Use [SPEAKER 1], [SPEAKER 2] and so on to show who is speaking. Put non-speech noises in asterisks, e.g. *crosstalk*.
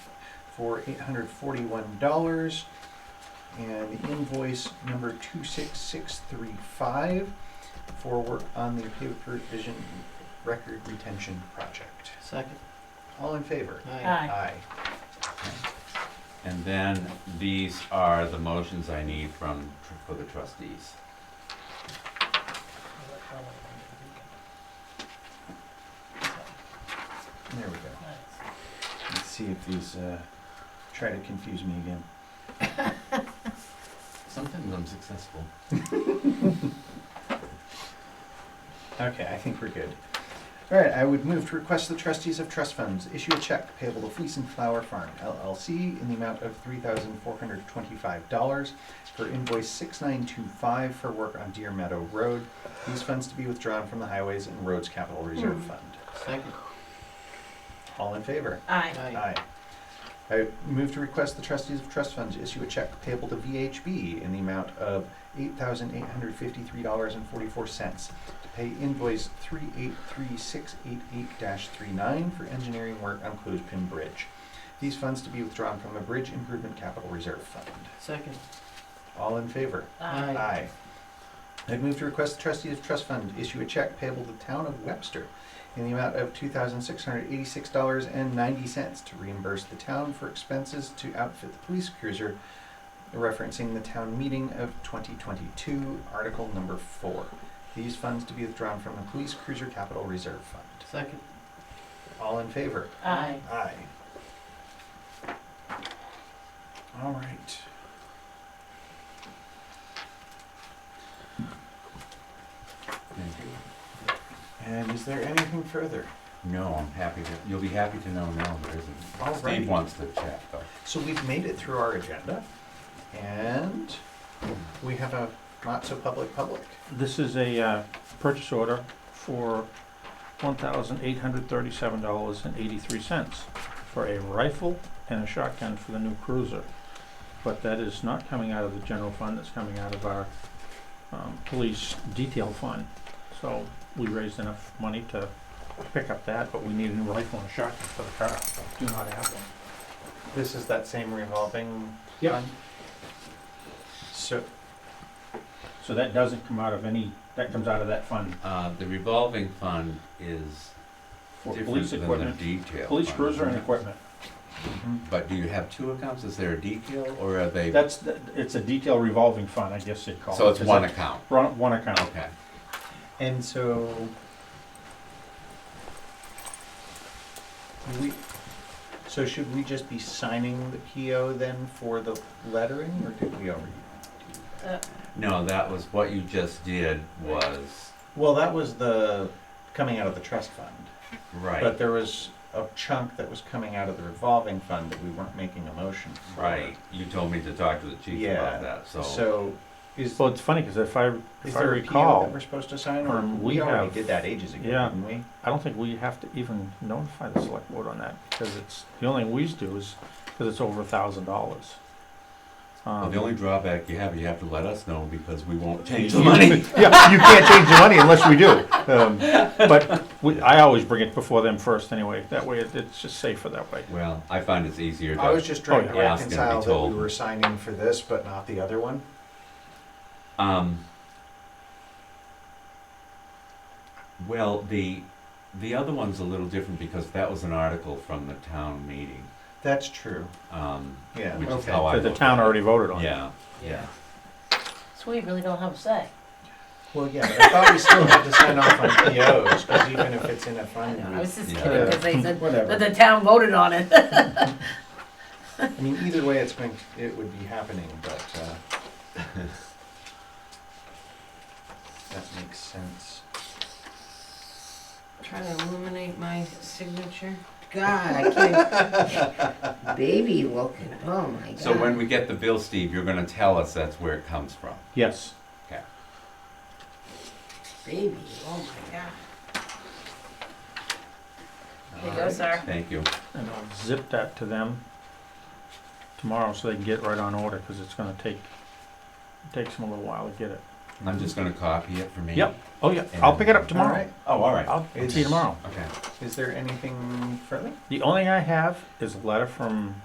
[SPEAKER 1] for eight hundred forty-one dollars. And invoice number two six six three five for work on the paper provision record retention project.
[SPEAKER 2] Second.
[SPEAKER 1] All in favor?
[SPEAKER 2] Aye.
[SPEAKER 3] Aye.
[SPEAKER 4] And then these are the motions I need from, for the trustees.
[SPEAKER 1] There we go. Let's see if these, uh, try to confuse me again.
[SPEAKER 4] Sometimes I'm successful.
[SPEAKER 1] Okay, I think we're good. All right, I would move to request the trustees of trust funds issue a check payable to Fleece and Flower Farm LLC in the amount of three thousand four hundred twenty-five dollars for invoice six nine two five for work on Deer Meadow Road. These funds to be withdrawn from the Highways and Roads Capital Reserve Fund.
[SPEAKER 2] Second.
[SPEAKER 1] All in favor?
[SPEAKER 3] Aye.
[SPEAKER 1] Aye. I move to request the trustees of trust funds issue a check payable to VHB in the amount of eight thousand eight hundred fifty-three dollars and forty-four cents to pay invoice three eight three six eight eight 39 for engineering work on Clues Pin Bridge. These funds to be withdrawn from the Bridge Improvement Capital Reserve Fund.
[SPEAKER 2] Second.
[SPEAKER 1] All in favor?
[SPEAKER 3] Aye.
[SPEAKER 1] Aye. I'd move to request the trustees of trust fund issue a check payable to the town of Webster in the amount of two thousand six hundred eighty-six dollars and ninety cents to reimburse the town for expenses to outfit the police cruiser, referencing the town meeting of twenty twenty-two, article number four. These funds to be withdrawn from the police cruiser capital reserve fund.
[SPEAKER 2] Second.
[SPEAKER 1] All in favor?
[SPEAKER 3] Aye.
[SPEAKER 1] Aye. All right.
[SPEAKER 4] Thank you.
[SPEAKER 1] And is there anything further?
[SPEAKER 4] No, I'm happy to, you'll be happy to know now there
[SPEAKER 1] All
[SPEAKER 4] isn't.
[SPEAKER 1] right.
[SPEAKER 4] Steve wants to chat though.
[SPEAKER 1] So we've made it through our agenda, and we have a not-so-public public.
[SPEAKER 5] This is a uh, purchase order for $1,837.83 for a rifle and a shotgun for the new cruiser. But that is not coming out of the general fund, it's coming out of our um, police detail fund. So we raised enough money to pick up that, but we need a new rifle and a shotgun for the car. Do not have one.
[SPEAKER 1] This is that same revolving
[SPEAKER 5] Yeah.
[SPEAKER 1] fund? So,
[SPEAKER 5] So that doesn't come out of any, that comes out of that fund
[SPEAKER 4] Uh, the revolving fund is
[SPEAKER 5] for
[SPEAKER 4] different
[SPEAKER 5] police
[SPEAKER 4] than the
[SPEAKER 5] equipment,
[SPEAKER 4] detail.
[SPEAKER 5] police
[SPEAKER 4] fund,
[SPEAKER 5] cruiser and
[SPEAKER 4] isn't it?
[SPEAKER 5] equipment.
[SPEAKER 1] mm-hmm,
[SPEAKER 4] But do you have two accounts? Is there a detail or are they?
[SPEAKER 5] That's, the- it's a detail revolving fund, I guess they'd call it.
[SPEAKER 4] So it's one Oh.
[SPEAKER 5] account.
[SPEAKER 4] account?
[SPEAKER 5] One account.
[SPEAKER 4] Okay.
[SPEAKER 1] and so we, so should we just be signing the PO then for the lettering, or did we already?
[SPEAKER 3] Uh,
[SPEAKER 4] No, that was, what you just did was,
[SPEAKER 1] Well, that was the, coming out of the trust fund. But
[SPEAKER 4] right,
[SPEAKER 1] there was a chunk that was coming out of the revolving fund that we weren't making a motion for.
[SPEAKER 4] right. You told me to talk to the chief
[SPEAKER 1] Yeah,
[SPEAKER 4] about that,
[SPEAKER 1] So is,
[SPEAKER 5] Well, it's funny, because if I,
[SPEAKER 1] is
[SPEAKER 5] if I
[SPEAKER 1] there a PO that
[SPEAKER 5] recall,
[SPEAKER 1] we're supposed to sign or
[SPEAKER 5] um,
[SPEAKER 1] we
[SPEAKER 5] we
[SPEAKER 1] already
[SPEAKER 5] have-
[SPEAKER 1] did that ages ago,
[SPEAKER 5] yeah.
[SPEAKER 1] didn't we?
[SPEAKER 5] I don't think we have to even notify the select board on that, because it's, the only thing we do is, because it's over a thousand dollars. Um,
[SPEAKER 4] Well, The only drawback you have, you have to let us know because we *laughs*
[SPEAKER 5] *laughs*
[SPEAKER 4] won't change the
[SPEAKER 5] Yeah,
[SPEAKER 4] money.
[SPEAKER 5] you can't change the money unless we do. Um, But we, I always bring it before them first anyway, that way it- it's just safer that way.
[SPEAKER 4] Well, I find it's easier
[SPEAKER 1] I was
[SPEAKER 4] to,
[SPEAKER 1] just trying
[SPEAKER 5] Oh,
[SPEAKER 1] to
[SPEAKER 4] yeah. Yeah, it's gonna be
[SPEAKER 1] reconcile that we
[SPEAKER 4] told.
[SPEAKER 1] were signing for this but not the other one.
[SPEAKER 4] um, well, the, the other one's a little different because that was an article from the town meeting,
[SPEAKER 1] That's true.
[SPEAKER 4] um,
[SPEAKER 1] Yeah.
[SPEAKER 4] which is
[SPEAKER 1] okay.
[SPEAKER 4] how I.
[SPEAKER 5] That the
[SPEAKER 4] look
[SPEAKER 5] town
[SPEAKER 4] at it.
[SPEAKER 5] already voted on.
[SPEAKER 4] Yeah, yeah.
[SPEAKER 3] So we really don't have a say.
[SPEAKER 1] Well, yeah, but I thought we still had to sign off on POs because even if it's in a
[SPEAKER 3] I
[SPEAKER 1] fund,
[SPEAKER 3] know, I
[SPEAKER 1] we-
[SPEAKER 3] was just
[SPEAKER 4] Yeah.
[SPEAKER 3] kidding, because they said that
[SPEAKER 1] whatever.
[SPEAKER 3] the town voted on
[SPEAKER 6] *laughs*
[SPEAKER 3] it.
[SPEAKER 1] I mean, either way, it's going, it would be happening, but, uh, that makes sense.
[SPEAKER 6] Try to illuminate my signature. God, I
[SPEAKER 3] *laughs*
[SPEAKER 6] can't. Baby looking. Oh my god.
[SPEAKER 4] So when we get the bill, Steve, you're gonna tell us that's where it comes from.
[SPEAKER 5] Yes,
[SPEAKER 4] Okay.
[SPEAKER 6] Baby. Oh my god.
[SPEAKER 3] There goes our,
[SPEAKER 4] Thank you.
[SPEAKER 5] and I'll zip that to them tomorrow so they can get right on order, because it's gonna take, takes them a little while to get it.
[SPEAKER 4] I'm just gonna copy it for me.
[SPEAKER 5] Yep. Oh, yeah, I'll pick it up
[SPEAKER 1] All
[SPEAKER 5] tomorrow.
[SPEAKER 1] right,
[SPEAKER 4] Oh, all right.
[SPEAKER 5] I'll see you tomorrow.
[SPEAKER 4] Okay.
[SPEAKER 1] is there anything further?
[SPEAKER 5] The only thing I have is a letter from